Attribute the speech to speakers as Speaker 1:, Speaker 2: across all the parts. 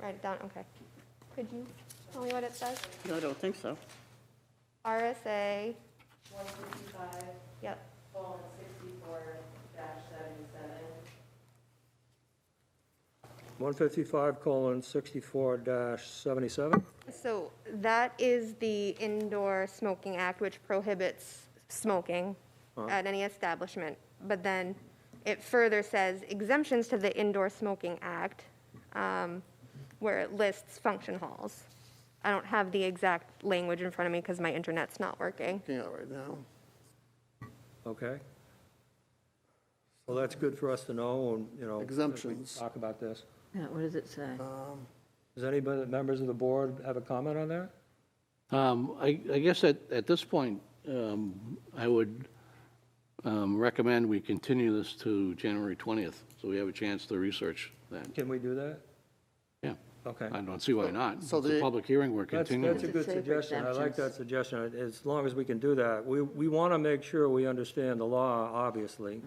Speaker 1: write it down, okay. Could you tell me what it says?
Speaker 2: No, I don't think so.
Speaker 1: RSA,
Speaker 3: one fifty-five,
Speaker 1: yep,
Speaker 3: colon sixty-four dash seventy-seven.
Speaker 4: 155 colon 64 dash 77?
Speaker 1: so that is the Indoor Smoking Act, which prohibits smoking at any establishment. But then it further says exemptions to the Indoor Smoking Act, um, where it lists function halls. I don't have the exact language in front of me because my internet's not working.
Speaker 5: Looking at it right now.
Speaker 4: Okay. Well, that's good for us to know, and, you know. if we
Speaker 5: Exemptions.
Speaker 4: Talk about this.
Speaker 2: Yeah, what does it say?
Speaker 4: Uh, Does anybody, members of the board have a comment on that?
Speaker 6: Um, I I guess at at this point, um, I would um, recommend we continue this to January 20th, so we have a chance to research that.
Speaker 4: Can we do that?
Speaker 6: Yeah,
Speaker 4: Okay.
Speaker 6: I don't see why not. It's
Speaker 5: So
Speaker 6: a
Speaker 5: the-
Speaker 6: public hearing, we're
Speaker 4: That's,
Speaker 6: continuing.
Speaker 4: that's a good
Speaker 2: Does it say for
Speaker 4: suggestion. I like that
Speaker 2: exemptions?
Speaker 4: suggestion. As long as we can do that. We, we want to make sure we understand the law, obviously,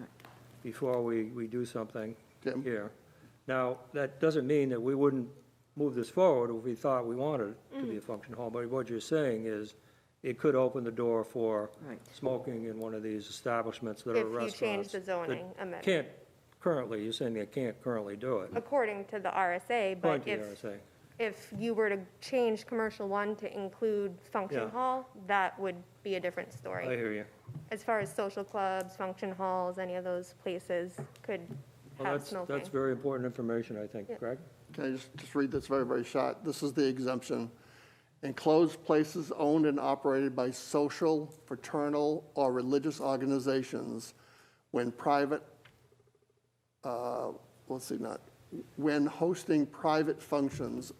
Speaker 4: before we, we do something
Speaker 5: Okay.
Speaker 4: here. Now, that doesn't mean that we wouldn't move this forward if we thought we wanted it to be a
Speaker 1: Mm.
Speaker 4: function hall, but what you're saying is it could open the door for
Speaker 2: Right.
Speaker 4: smoking in one of these establishments that
Speaker 1: If
Speaker 4: are
Speaker 1: you change
Speaker 4: restaurants.
Speaker 1: the
Speaker 4: that
Speaker 1: zoning amendment.
Speaker 4: Can't currently, you're saying they can't currently do it.
Speaker 1: according to the RSA, but
Speaker 4: According to
Speaker 1: if,
Speaker 4: the RSA.
Speaker 1: if you were to change commercial one to include function
Speaker 4: Yeah.
Speaker 1: hall, that would be a different
Speaker 4: I
Speaker 1: story.
Speaker 4: hear you.
Speaker 1: As far as social clubs, function halls, any of those places could
Speaker 4: Well,
Speaker 1: have
Speaker 4: that's,
Speaker 1: smoking.
Speaker 4: that's very important information, I think, Greg.
Speaker 5: Can I just, just read this very, very short? This is the exemption. Enclosed places owned and operated by social, fraternal, or religious organizations when private, uh, let's see, not, when hosting private functions,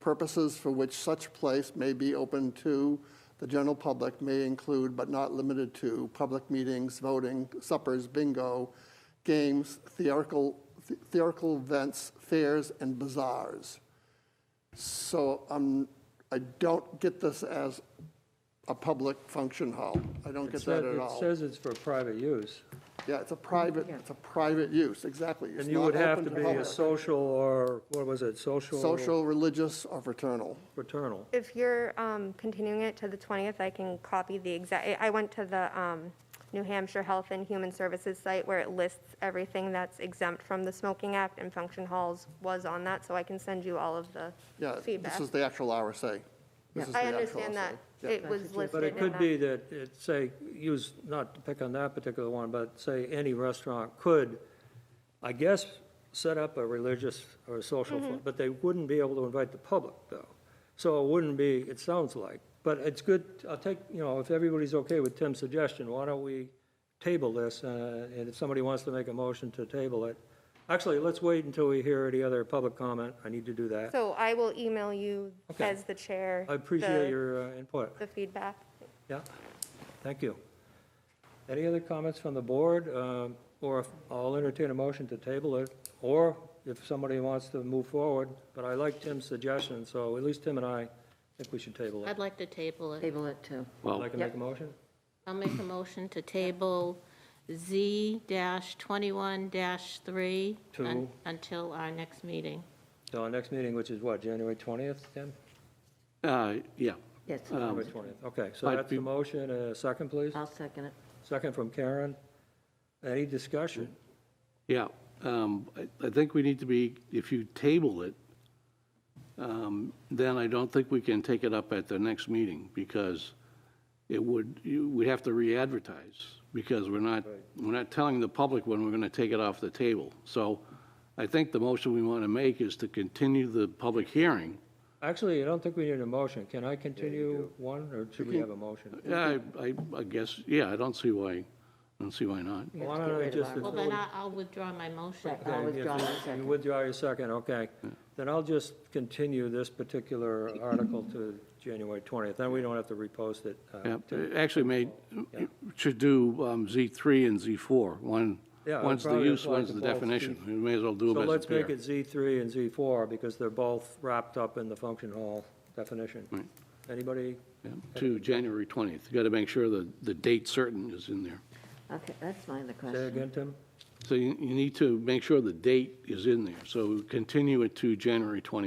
Speaker 5: purposes for which such place may be open to the general public may include, but not limited to, public meetings, voting, suppers, bingo, games, theatrical, theatrical events, fairs, and bazaars. So I'm, I don't get this as a public function hall. I don't get that at all.
Speaker 4: It says it's for private use,
Speaker 5: Yeah, it's a private, it's a private use, exactly. It's
Speaker 4: and you
Speaker 5: not
Speaker 4: would have
Speaker 5: open
Speaker 4: to be a
Speaker 5: public.
Speaker 4: social or, what was it, social?
Speaker 5: Social, religious, or fraternal.
Speaker 4: Fraternal.
Speaker 1: If you're um, continuing it to the 20th, I can copy the exact, I went to the um, New Hampshire Health and Human Services site where it lists everything that's exempt from the Smoking Act, and function halls was on that, so I can send you all of the
Speaker 5: Yeah,
Speaker 1: feedback.
Speaker 5: this is the actual RSA. This is
Speaker 1: I
Speaker 5: the actual
Speaker 1: understand that.
Speaker 5: RSA. Yeah.
Speaker 1: It was listed
Speaker 4: But it
Speaker 1: in
Speaker 4: could
Speaker 1: that.
Speaker 4: be that it, say, use, not to pick on that particular one, but say any restaurant could, I guess, set up a religious or a social,
Speaker 1: Mm-hmm.
Speaker 4: fu- but they wouldn't be able to invite the public, though. So it wouldn't be, it sounds like, but it's good, I'll take, you know, if everybody's okay with Tim's suggestion, why don't we table this, uh, and if somebody wants to make a motion to table it, actually, let's wait until we hear any other public comment, I need to do that.
Speaker 1: So I will email you
Speaker 4: Okay.
Speaker 1: as the chair.
Speaker 4: I
Speaker 1: the-
Speaker 4: appreciate your uh, input.
Speaker 1: The feedback.
Speaker 4: Yeah, thank you. Any other comments from the board? Um, Or if- I'll entertain a motion to table it, or if somebody wants to move forward, but I like Tim's suggestion, so at least Tim and I think we should table it.
Speaker 7: I'd like to table it.
Speaker 2: Table it to,
Speaker 4: Would you
Speaker 6: Well,
Speaker 4: like to make a motion?
Speaker 7: I'll make a motion to table Z-21-3
Speaker 4: To-
Speaker 7: un- until our next meeting.
Speaker 4: So our next meeting, which is what, January 20th, Tim?
Speaker 6: uh, yeah,
Speaker 2: yes,
Speaker 4: January 20th, okay, so
Speaker 6: I'd
Speaker 4: that's the
Speaker 6: Um, be- Um.
Speaker 4: motion, Uh, second, please?
Speaker 2: I'll second it.
Speaker 4: Second from Karen. Any discussion?
Speaker 6: yeah. Um, I I think we need to be, if you table it, um, then I don't think we can take it up at the next meeting, because it would, you- we'd have to re-advertise, because we're not, we're not telling the public when we're going to take it off the table. So I think the motion we want to make is to continue the public hearing.
Speaker 4: Actually, I don't think we need a motion. Can I continue one, or should we have a motion?
Speaker 6: Yeah, I, I- I guess, yeah, I don't see why, I don't see why not.
Speaker 4: Why
Speaker 2: get
Speaker 4: don't I
Speaker 2: rid of
Speaker 4: just
Speaker 2: our-
Speaker 7: Well, then I- I'll withdraw my motion.
Speaker 2: Right, I'll
Speaker 4: Okay,
Speaker 2: withdraw
Speaker 4: if
Speaker 2: my
Speaker 4: you- You
Speaker 2: second.
Speaker 4: withdraw your second, okay. Then I'll just continue this particular article to January 20th, then we don't have to repost it. uh,
Speaker 6: Yeah,
Speaker 4: to-
Speaker 6: actually made, should do um, Z3 and Z4. One,
Speaker 4: Yeah, it
Speaker 6: one's the
Speaker 4: probably
Speaker 6: use,
Speaker 4: applies
Speaker 6: one's
Speaker 4: to
Speaker 6: the
Speaker 4: both.
Speaker 6: definition. We may as well do
Speaker 4: So
Speaker 6: them as
Speaker 4: let's
Speaker 6: a
Speaker 4: make
Speaker 6: pair.
Speaker 4: it Z3 and Z4, because they're both wrapped up in the function hall definition.
Speaker 6: Right.
Speaker 4: Anybody?
Speaker 6: Yeah, To January 20th. You got to make sure the, the date certain is in there.
Speaker 2: Okay, that's my other
Speaker 4: Say
Speaker 2: question.
Speaker 4: again, Tim?
Speaker 6: So you, you need to make sure the date is in there. So continue it to January 20th.